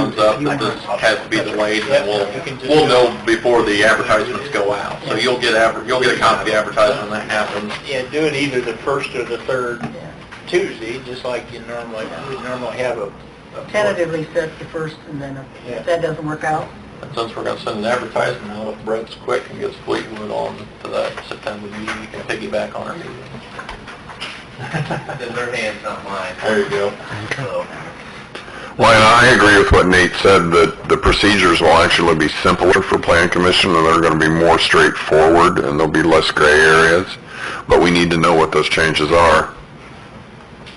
up that this has to be delayed, and we'll, we'll know before the advertisements go out. So you'll get, adver- you'll get a copy of the advertisement when that happens. Yeah, do it either the first or the third Tuesday, just like you normally, we normally have a... a- Tentatively set the first, and then if- Yeah. if that doesn't work out, And since we're gonna send an advertisement out, if Brett's quick and gets Fleetwood on to that September meeting, you can piggyback on our meeting. Their hand's not mine, There you go. so... Well, and I agree with what Nate said, that the procedures will actually be simpler for plan commission, and they're gonna be more straightforward, and there'll be less gray areas, but we need to know what those changes are.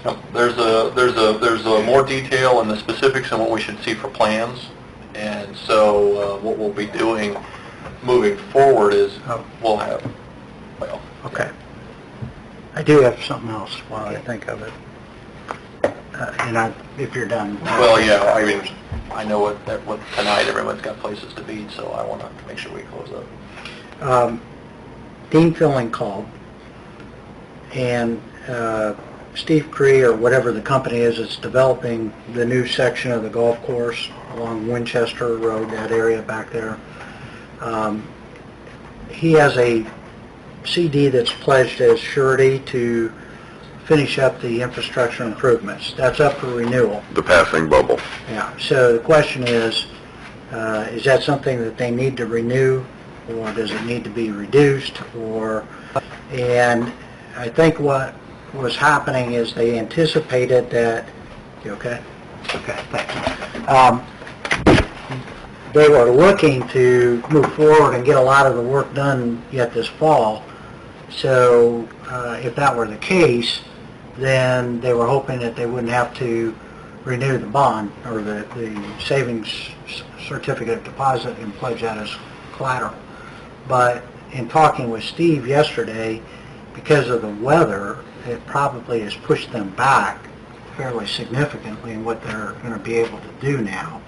Yep, There's a, there's a, there's a more detail in the specifics on what we should see for plans, and so uh, what we'll be doing moving forward is, we'll have, well, Okay. I do have something else while I think of it. Uh, And I, if you're done. well, yeah, I mean, I know what, that, what, tonight, everyone's got places to be, so I wanna make sure we close up. Um, Dean Filling called, and uh, Steve Cree, or whatever the company is, that's developing the new section of the golf course along Winchester Road, that area back there. Um, He has a CD that's pledged as surety to finish up the infrastructure improvements. That's up for renewal. The passing bubble. Yeah, so the question is, uh, is that something that they need to renew, or does it need to be reduced, or, and I think what was happening is they anticipated that, you okay? Okay, thanks. Um, They were looking to move forward and get a lot of the work done yet this fall, so uh, if that were the case, then they were hoping that they wouldn't have to renew the bond or the, the savings c- certificate of deposit and pledge that as collateral. But in talking with Steve yesterday, because of the weather, it probably has pushed them back fairly significantly in what they're going to be able to do now.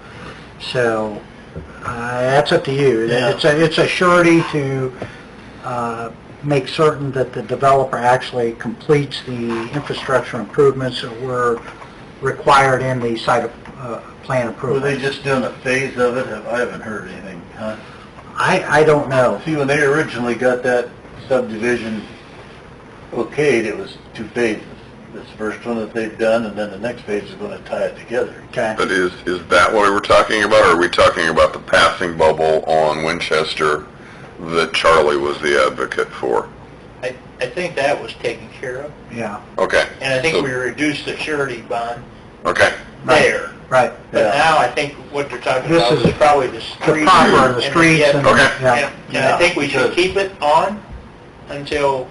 So uh, that's up to you. It's a, it's a surety to uh, make certain that the developer actually completes the infrastructure improvements that were required in the site uh, plan approval. just doing a phase of it? I haven't heard anything, huh? I, I don't know. See, when they originally got that subdivision okayed, it was two phases. This first one that they've done, and then the next phase is gonna tie it together. Okay. But is, is that what we were talking about, or are we talking about the passing bubble on Winchester that Charlie was the advocate for? I, I think that was taken care of, Yeah, Okay. and I So- think we reduced the surety bond Okay. there. right. But now I think what they're talking This about is is probably the The street. proper, the and- streets yeah, and... Okay. yeah. And and I think we should keep it on until,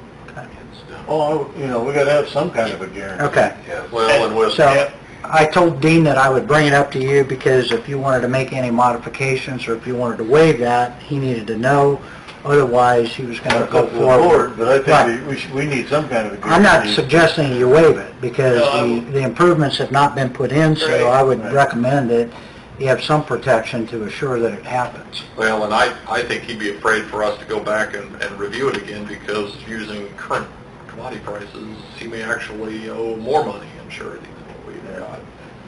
Well, Oh, you know, we gotta have some kind of a guarantee. Okay. Yeah, well, and with, So I told Dean that I would bring it up to you because if you wanted to make any modifications or if you wanted to waive that, he needed to know. Otherwise, he was going to that's go up to the board, forward. but I Right. think we- we, should- we need some kind of a guarantee. I'm not suggesting you waive it because No, I the won't. the improvements have not been put in, so Right, I would right. recommend that you have some protection to assure that it happens. Well, and I, I think he'd be afraid for us to go back and, and review it again because using current commodity prices, he may actually owe more money in surety than what we've got in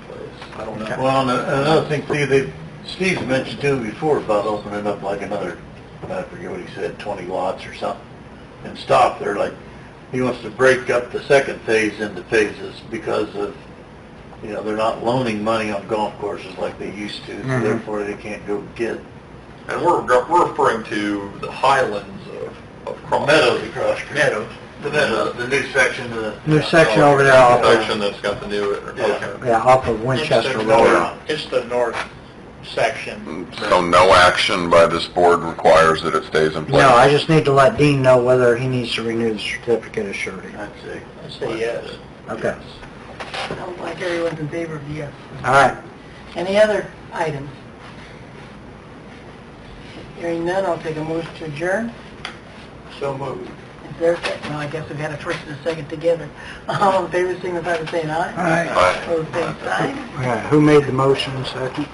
place. I don't know. Well, and another thing, Steve, they, Steve's mentioned too before about opening up like another, I forget what he said, twenty lots or something, and stop there, like, he wants to break up the second phase into phases because of, you know, they're not loaning money on golf courses like they used to, so Mhm. therefore they can't go get and we're, we're referring to the highlands of, of Crawford. Meadows across. Meadows. The meadows, the new section of the. New section over there off of- Section that's got the new, okay. Yeah, off of Winchester Road. it's the north section. So no action by this board requires that it stays in place? No, I just need to let Dean know whether he needs to renew the certificate of surety. I'd say. I say yes. Okay, sounds like everyone's in favor of yes. all right. Any other items? Hearing none, I'll take a motion to adjourn. So moved. Is there a second? No, I guess we've had a first and a second together. All in favor, signify by saying aye. All right, Aye. Opposed, same sign. who made the motion second?